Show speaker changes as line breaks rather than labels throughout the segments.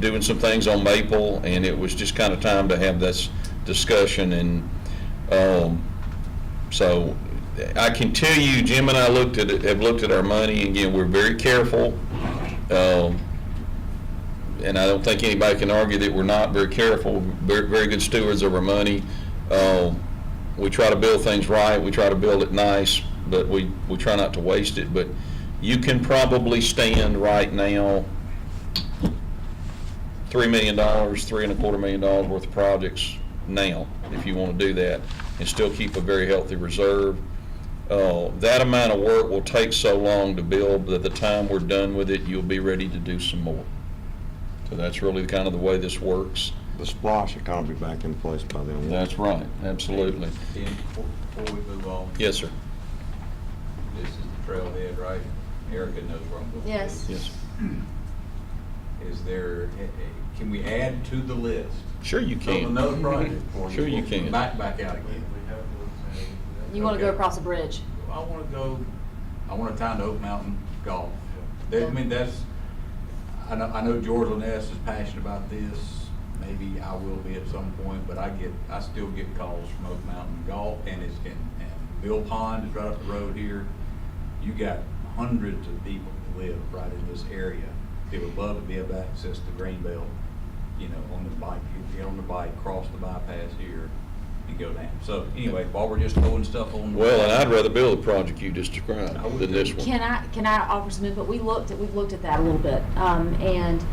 doing some things on Maple, and it was just kind of time to have this discussion, and, um, so I can tell you, Jim and I looked at, it- have looked at our money, and again, we're very careful. Um, and I don't think anybody can argue that we're not very careful, very, very good stewards of our money. Um, we try to build things right, we try to build it nice, but we, we try not to waste it. But you can probably stand right now, three million dollars, three and a quarter million dollars worth of projects now, if you want to do that, and still keep a very healthy reserve. Uh, that amount of work will take so long to build that the time we're done with it, you'll be ready to do some more. So that's really kind of the way this works.
The splosh economy back in place by then.
That's right, absolutely.
Dan, before before we move on,
Yes, sir.
this is the trailhead, right? Erica knows where I'm going. with
Yes.
this.
Yes.
Is there, eh, eh, can we add to the list?
Sure you
Build
can.
Another project for you.
Sure you can.
Back, back out again.
You want to go
Okay.
across a bridge?
I wanna go, I wanna tie into Oak Mountain Golf. That, I mean, that's, I know, I know George Lanes is passionate about this, maybe I will be at some point, but I get, I still get calls from Oak Mountain Golf, and it's, and, and Bill Pond is right up the road here. You got hundreds of people that live right in this area, that would love to be able to access the Greenbelt, you know, on the bike, You get on the bike, cross the bypass here, and go down. So anyway, while we're just throwing stuff on.
Well, and I'd rather build the project you just described than this one.
Can I, can I offer some input? We looked at, we've looked at that a little bit. Um, and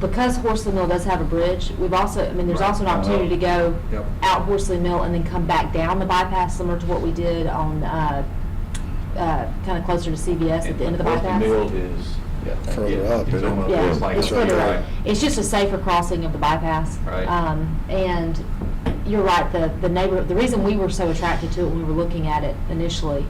because Horsley Mill does have a bridge, we've also, I mean, there's
Right.
also an opportunity to go
Yep.
out Horsley Mill and then come back down the bypass, similar to what we did on, uh, uh, kind of closer to CVS at the end of the
Worth
bypass.
mill is.
Further up,
It's
isn't it?
almost-
Yeah,
it's like- uh,
it's further
right.
up. It's just a safer crossing of the bypass.
Right.
Um, and you're right, the, the neighbor, the reason we were so attracted to it when we were looking at it initially,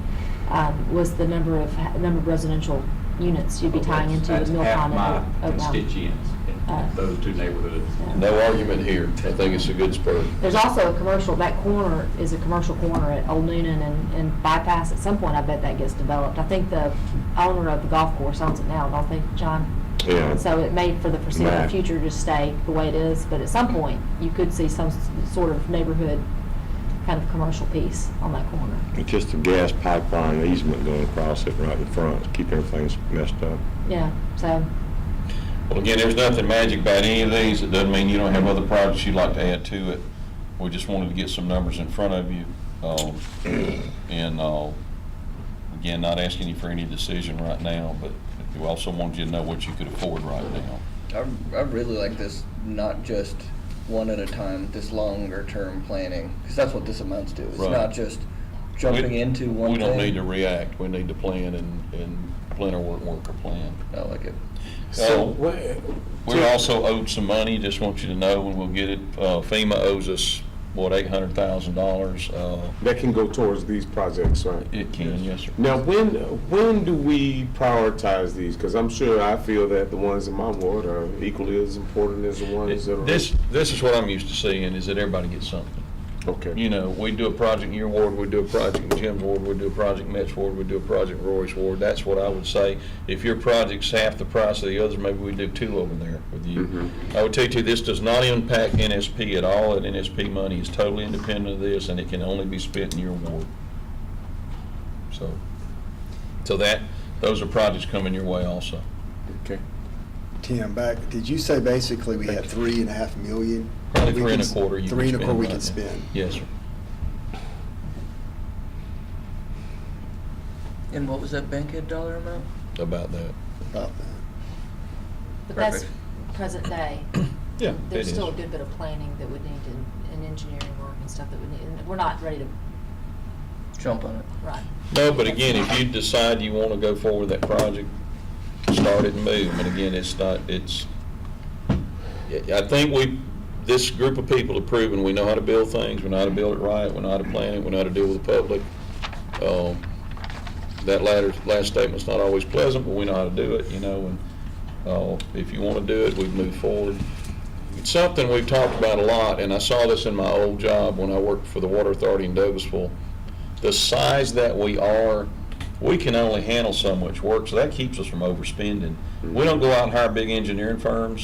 um, was the number of, number of residential units you'd be tying into the
Oh, That's
Mill
half
Pond
my
and Oak- Oak Mountain.
Constituents
Uh,
in those two neighborhoods.
No argument here. I think it's a good spur.
There's also a commercial, that corner is a commercial corner at Old Noonan and, and bypass. At some point, I bet that gets developed. I think the owner of the golf course owns it now, don't they, John?
Yeah.
So it may, for the foreseeable
Right.
future, just stay the way it is, but at some point, you could see some s- sort of neighborhood, kind of commercial piece on that corner.
It's just a gas pipeline easement going across it right in front, keep everything messed up.
Yeah, so,
Well, again, there's nothing magic about any of these. It doesn't mean you don't have other projects you'd like to add to it. We just wanted to get some numbers in front of you. Um, And, uh, again, not asking you for any decision right now, but we also wanted you to know what you could afford right now.
I, I really like this, not just one at a time, this longer term planning, because that's what this amounts to. It's
Right.
not just jumping
We-
into one
We don't
thing.
need to react. We need to plan and, and plan our work, work our plan.
I like it.
So,
So,
We're also owed some money, just want you to know, and we'll get it. Uh, FEMA owes us, what, eight hundred thousand dollars? uh,
that can go towards these projects, right?
It can, yes, sir.
Now, when, when do we prioritize these? Because I'm sure I feel that the ones in my ward are equally as important as the ones that are.
This, this is what I'm used to seeing, is that everybody gets something.
Okay.
You know, we do a project in your ward, we do a project in Jim's ward, we do a project in Matt's ward, we do a project in Roy's ward. That's what I would say. If your project's half the price of the others, maybe we do two over there with
Mm-hmm.
you. I would tell you, this does not impact NSP at all. That NSP money is totally independent of this, and it can only be spent in your ward. So, so that, those are projects coming your way also.
Okay.
Tim, back, did you say basically we had three and a half million?
Probably
we
three and
can
a
s-
quarter you
Three
can
and a quarter we
spend
can
right
spend.
Yes, sir.
And what was that bankhead dollar amount?
About that.
About that.
but that's present day.
Yeah.
There's still a good bit of planning that would need in, in engineering work and stuff that would need, and we're not ready to,
Jump on it.
right.
No, but again, if you decide you want to go forward with that project, start it and move. And again, it's not, it's, I I think we, this group of people have proven we know how to build things, we know how to build it right, we know how to plan it, we know how to deal with the public. Um, That latter, last statement's not always pleasant, but we know how to do it, you know, and uh, if you want to do it, we move forward. It's something we've talked about a lot, and I saw this in my old job when I worked for the Water Authority in Douglasville the size that we are, we can only handle so much work, so that keeps us from overspending. We don't go out and hire big engineering firms,